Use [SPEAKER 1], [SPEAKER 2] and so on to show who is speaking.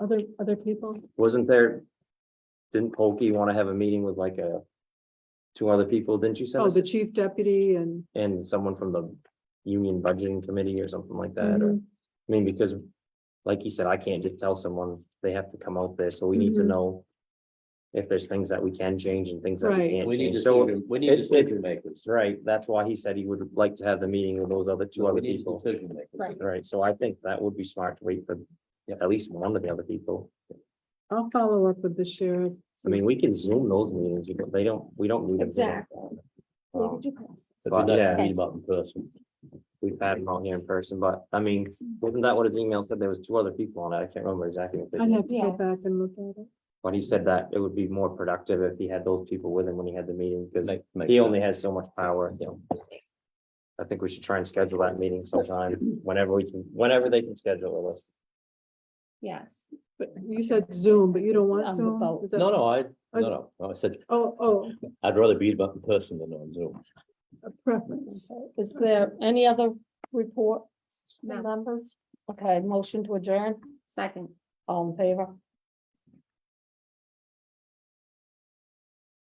[SPEAKER 1] other, other people?
[SPEAKER 2] Wasn't there? Didn't Polkey want to have a meeting with like a? Two other people, didn't you send
[SPEAKER 1] Oh,
[SPEAKER 2] us,
[SPEAKER 1] the chief deputy and.
[SPEAKER 2] and someone from the union budgeting committee or something like that, or,
[SPEAKER 1] Mm-hmm.
[SPEAKER 2] I mean, because. Like you said, I can't just tell someone they have to come out there, so we need to
[SPEAKER 1] Mhm.
[SPEAKER 2] know. If there's things that we can change and things that
[SPEAKER 1] Right.
[SPEAKER 2] we can't
[SPEAKER 3] We need
[SPEAKER 2] change, so,
[SPEAKER 3] decision, we
[SPEAKER 2] it-
[SPEAKER 3] need decision makers.
[SPEAKER 2] right, that's why he said he would like to have the meeting with those other two
[SPEAKER 3] We
[SPEAKER 2] other
[SPEAKER 3] need
[SPEAKER 2] people.
[SPEAKER 3] decision makers.
[SPEAKER 1] Right.
[SPEAKER 2] Right, so I think that would be smart to wait for
[SPEAKER 3] Yep.
[SPEAKER 2] at least one of the other people.
[SPEAKER 1] I'll follow up with the sheriff.
[SPEAKER 2] I mean, we can zoom those meetings, you know, they don't, we don't need them. here.
[SPEAKER 4] Where
[SPEAKER 2] Um,
[SPEAKER 4] did you pass?
[SPEAKER 3] But
[SPEAKER 2] But
[SPEAKER 3] we
[SPEAKER 2] yeah.
[SPEAKER 3] don't meet about in person.
[SPEAKER 2] We've had them out here in person, but I mean, wasn't that what his email said? There was two other people on it. I can't remember exactly. if they
[SPEAKER 1] I'd
[SPEAKER 2] did,
[SPEAKER 1] have to go back
[SPEAKER 4] Yes.
[SPEAKER 1] and look at it.
[SPEAKER 2] But he said that it would be more productive if he had those people with him when he had the meeting, because
[SPEAKER 3] Make- make
[SPEAKER 2] he
[SPEAKER 3] that.
[SPEAKER 2] only has so much power, you know. I think we should try and schedule that meeting sometime, whenever we can, whenever they can schedule it.
[SPEAKER 4] Yes.
[SPEAKER 1] But you said Zoom, but you don't want
[SPEAKER 4] On the
[SPEAKER 1] Zoom?
[SPEAKER 4] boat.
[SPEAKER 1] Is that-
[SPEAKER 3] No, no, I,
[SPEAKER 1] I-
[SPEAKER 3] no, no, I said,
[SPEAKER 1] Oh, oh,
[SPEAKER 3] I'd rather be about in person than on Zoom.
[SPEAKER 1] a preference.
[SPEAKER 4] Okay. Is there any other reports,
[SPEAKER 5] No.
[SPEAKER 4] from members? Okay, motion to adjourn,
[SPEAKER 5] Second.
[SPEAKER 4] all in favor?